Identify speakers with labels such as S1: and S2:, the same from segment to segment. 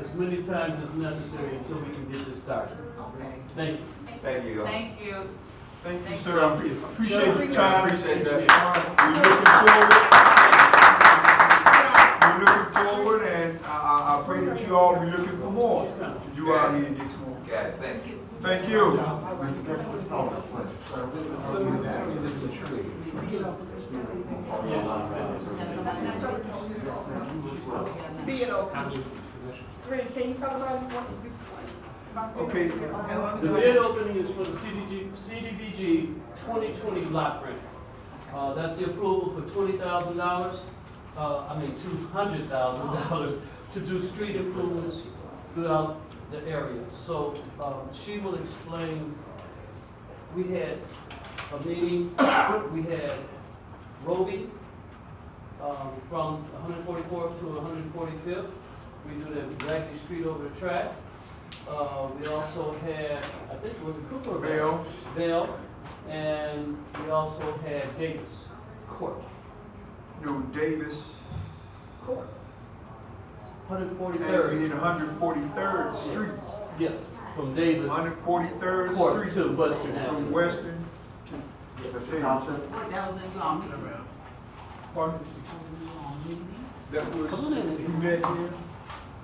S1: as many times as necessary until we can get this started.
S2: Okay.
S1: Thank you.
S3: Thank you.
S2: Thank you.
S4: Thank you,
S2: Thank
S4: sir. I pre- appreciate your time.
S3: Appreciate
S4: We're
S3: that.
S4: looking forward. We're looking forward and I, I, I pray that you all be looking for more to do out here next month.
S3: Okay, thank you.
S4: Thank you.
S5: Be it open. Ray, can you talk about what? about-
S4: Okay.
S1: The bid opening is for the CDG, CDBG 2020 block grant. Uh, That's the approval for $20,000, uh, I mean $200,000 to do street improvements throughout the area. So um, she will explain, we had a meeting, we had Roby um, from 144th to 145th. We do the Blackley Street over the track. Uh, we also had, I think it was a Cooper.
S4: Bell.
S1: Bell, and we also had Davis Court,
S4: No, Davis. And
S1: 143rd.
S4: in 143rd Street.
S1: Yes, from Davis
S4: 143rd
S1: Court
S4: Street.
S1: to Western
S4: From
S1: Avenue.
S4: Western to.
S1: Yes.
S4: Davis.
S2: What, that was in your meeting?
S4: Pardon? that was,
S1: Come on in.
S4: we met here,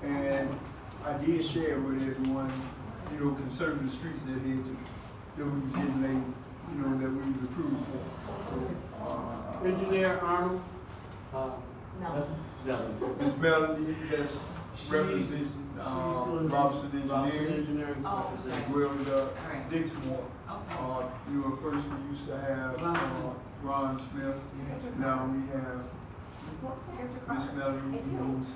S4: and I did share with everyone, you know, concerning the streets that had, to- that we was getting laid, you know, that we was approved for. So, uh,
S1: Engineer Arnold? uh,
S2: No.
S1: No.
S4: Ms. Melody, that's
S1: She's-
S4: representing,
S1: she's
S4: uh,
S1: doing-
S4: Robson
S1: Robson
S4: Engineering,
S1: Engineering.
S2: Oh,
S4: as
S2: okay.
S4: well as, uh,
S2: Alright.
S4: Dixon Ward.
S2: Okay.
S4: Uh, you were first, we used to have,
S2: Ron
S4: uh,
S2: Smith.
S4: Ron Smith, now we have Ms. Melody, who's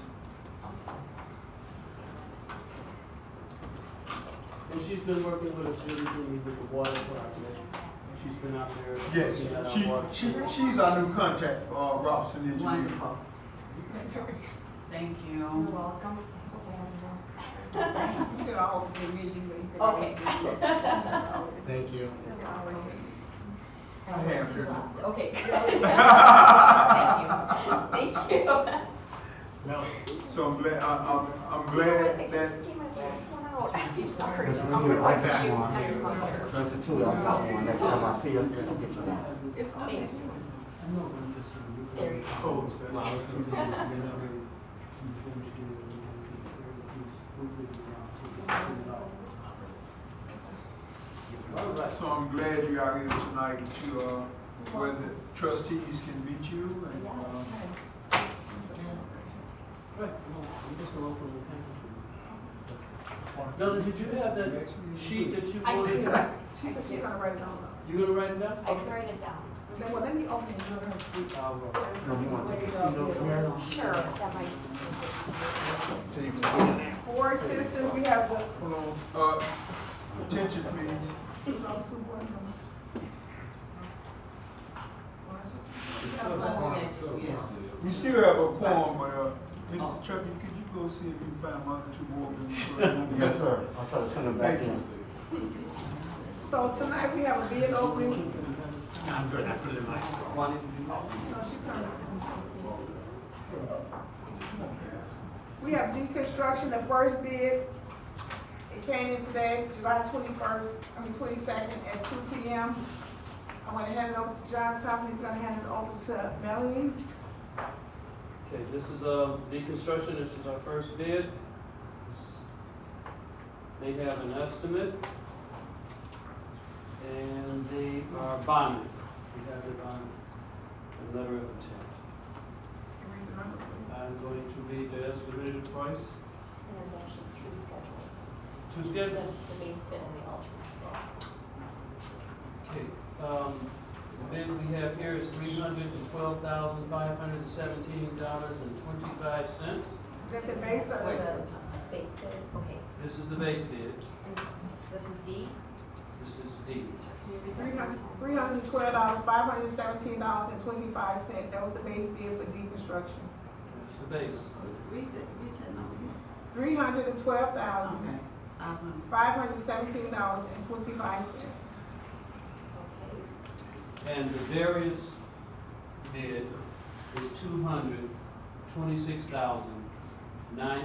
S6: Oh.
S1: And she's been working with us diligently with the water project. She's been out there.
S4: Yes,
S1: looking at our
S4: she,
S1: water.
S4: she, she's our new contact, uh, Robson Engineer.
S2: Wonderful. Thank
S6: You're
S2: you.
S6: welcome.
S2: You can always say me, you can
S6: Okay.
S2: always say me.
S7: Thank you.
S4: I have her.
S6: Okay. Thank you. Thank
S4: So I'm glad, I, I'm, I'm
S6: you. I
S4: glad that,
S6: just came my last one out. I'm sorry.
S7: That's
S6: I'll
S7: really like
S6: watch
S7: that
S6: you.
S7: one.
S6: That's fine.
S7: That's a two, I'll get one next time I see you, I'll get you one.
S6: It's clean.
S1: I'm not going to say you.
S6: There you
S4: oh, so-
S1: Well, I was gonna do it, and then I already informed you, and then we can carry it, please, hopefully we don't have to send it out. All right.
S4: so I'm glad you're out here tonight, that you, uh, where the trustees can meet you and, um,
S1: Right, well, I'm just gonna open the package. Donna, did you have that sheet that you
S6: I
S1: wanted?
S6: do.
S5: She said she's gonna write it on.
S1: You gonna write it down?
S6: I can write it down.
S5: Then, Well, let me open it, and let her speak.
S1: I'll write it.
S7: No, you want to take a seat over there?
S6: Sure, that might.
S5: Board citizens, we have the,
S4: hold on, uh, attention please.
S5: those two board members.
S4: We still have a quorum, but, uh, Mr. Truckee, could you go see if you can find my other two board members?
S7: Yes, sir. I'll try to send them back in.
S5: So tonight we have a bid opening,
S1: Why didn't you do that?
S5: No, she's coming. We have deconstruction, the first bid, it came in today, July twenty-first, I mean twenty-second at two P M. I'm gonna hand it over to John Thompson, he's gonna hand it over to Melanie.
S1: Okay, this is, uh, deconstruction, this is our first bid. This- They have an estimate. And they are bonded. We have it on a letter of intent. I'm going to read the estimated price.
S6: And there's actually two schedules,
S1: Two
S6: the,
S1: schedules?
S6: the base bid and the alternate
S1: Okay, um, the bid we have here is three hundred and twelve thousand, five hundred and seventeen dollars and twenty-five cents.
S5: That the base
S6: bid.
S5: of,
S6: So the base bid, okay,
S1: This is the base bid.
S6: and this is D?
S1: This is D.
S6: Sorry, can you
S5: three
S6: read that?
S5: hundred, three hundred and twelve dollars, five hundred and seventeen dollars and twenty-five cent, that was the base bid for deconstruction.
S1: That's the base.
S2: Read that, read that number.
S5: Three hundred and twelve
S2: Okay.
S5: thousand,
S2: Five hundred.
S5: five hundred and seventeen dollars and twenty-five cent.
S6: Okay.
S1: And the various bid is two hundred, twenty-six thousand, nine